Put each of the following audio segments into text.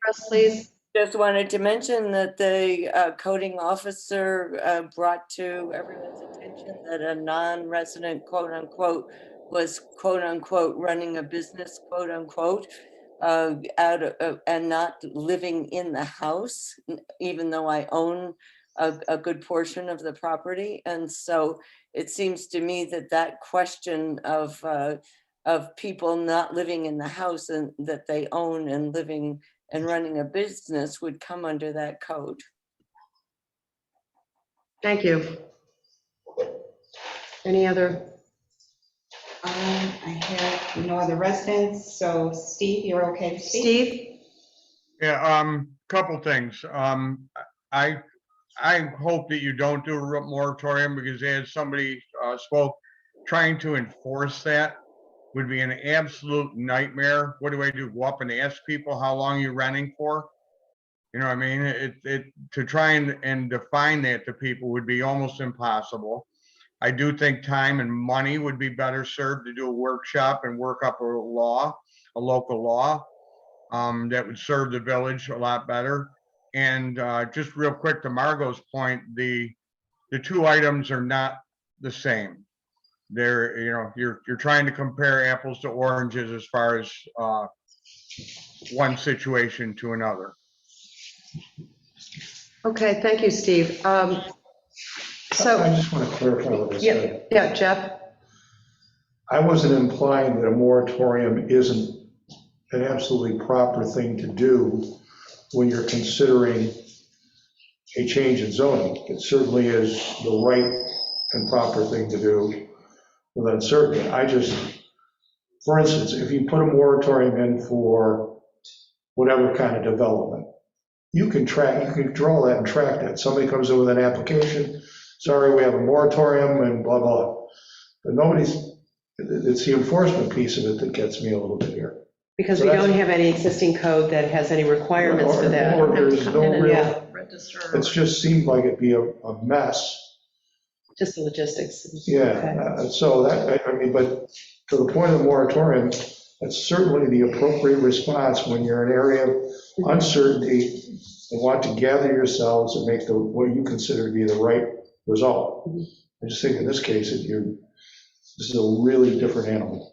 Press, please. Just wanted to mention that the uh, coding officer uh, brought to everyone's attention that a non-resident quote-unquote was quote-unquote running a business quote-unquote uh, out of- uh, and not living in the house, n- even though I own a, a good portion of the property. And so it seems to me that that question of uh, of people not living in the house and that they own and living and running a business would come under that code. Thank you. Any other, Um, I have no other residents, so Steve, you're okay to speak? Steve? Yeah, um, couple things. Um, I, I hope that you don't do a moratorium because as somebody uh, spoke, trying to enforce that would be an absolute nightmare. What do I do? Go up and ask people how long you're renting for? You know what I mean? It, it, to try and, and define that to people would be almost impossible. I do think time and money would be better served to do a workshop and work up a law, a local law um, that would serve the village a lot better. And, uh, just real quick to Margot's point, the, the two items are not the same. They're, you know, you're, you're trying to compare apples to oranges as far as, uh, one situation to another. Okay, thank you, Steve. Um, I So, just want to clarify what I yeah, said. yeah, Jeff? I wasn't implying that a moratorium isn't an absolutely proper thing to do when you're considering a change in zoning. It certainly is the right and proper thing to do with uncertainty. I just, for instance, if you put a moratorium in for whatever kind of development, you can track, you can draw that and track that. Somebody comes in with an application, sorry, we have a moratorium and blah, blah. But nobody's, it's the enforcement piece of it that gets me a little bit here. Because we don't have any existing code that has any requirements for that. Or there's no Yeah, real- It just seemed like it'd be a, a mess. just the logistics. Yeah, uh, so that, I- I mean, but to the point of the moratorium, that's certainly the appropriate response when you're in an area of uncertainty and want to gather yourselves and make the, what you consider to be the right result. I just think in this case, if you, this is a really different animal.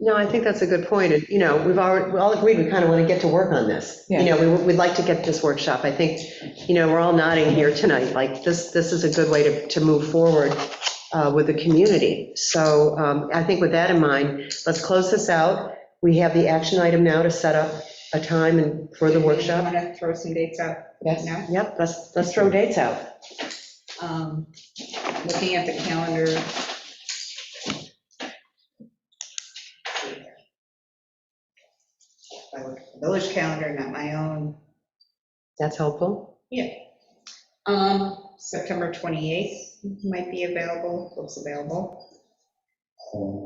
No, I think that's a good point. And, you know, we've already, we all agreed, we kind of want to get to work on this. You know, we- we'd like to get this workshop. I think, you know, we're all nodding here tonight, like, this, this is a good way to, to move forward uh, with the community. So um, I think with that in mind, let's close this out. We have the action item now to set up a time and for the workshop. Want to throw some dates out? Yes. No? Yep, let's, let's throw dates out. Um, Looking at the calendar. I look at the Village calendar, not my own. That's helpful. Yeah. Um, September 28th might be available, looks available.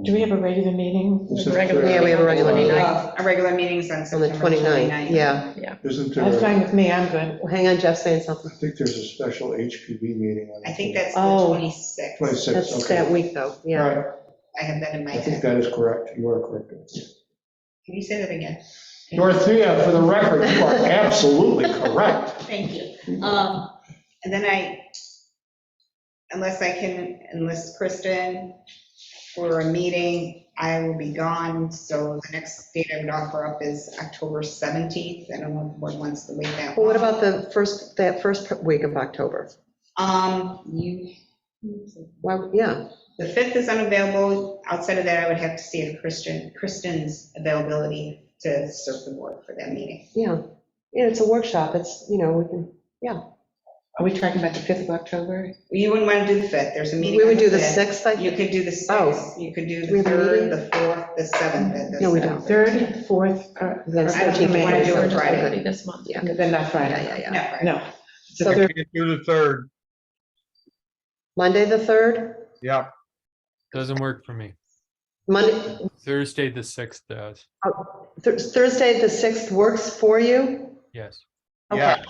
Do we have a regular meeting? This is- Yeah, we have a regular meeting. Uh, Our regular meeting's on On the September 29th, 29th. yeah. Isn't there? That's fine with me, I'm good. Well, Hang on, Jeff's saying something. I think there's a special HPV meeting on. I think that's the Oh. 26th. 26, That's okay. that week, though, yeah. All right, I have that in my I head. think that is correct, you are correct. Can you say that again? Dorothea, for the record, you are absolutely correct. Thank you. Um, And then I, unless I can enlist Kristen for a meeting, I will be gone. So the next date I would offer up is October 17th. I don't know if the board wants to wait that Well, long. what about the first, that first week of October? Um, you, Well, yeah, the 5th is unavailable. Outside of that, I would have to see if Kristen, Kristen's availability to serve the board for that meeting. yeah. Yeah, it's a workshop, it's, you know, we can, Are we talking about the 5th of October? You wouldn't want to do the 5th. There's a meeting. we on would do the fifth. 6th, I You think. could do the Oh. 6th, you could do We the have a 3rd, meeting? the 4th, the 7th, and the No, we don't. 7th. 3rd, 4th, or the That's 13th? I don't think we wanna do it Friday. Friday this month. Yeah. Then not Yeah, yeah, Friday. yeah. No, No. So I there- can't do the third. Monday, the 3rd? Yep. Doesn't work for me. Monday, Thursday, the sixth does. Thur- Thursday, the 6th works for you? Yes. Yeah.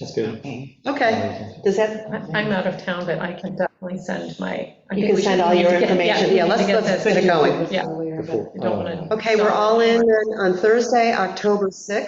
That's good. Okay, does that, I- I'm out of town, but I can definitely send my. I You think can we send should- all we need your to get- information. we Yeah, need to let's- get let's this get it going. Yeah. Earlier, but- Oh. I Don't want to. okay, we're all in then on Thursday, October 6th.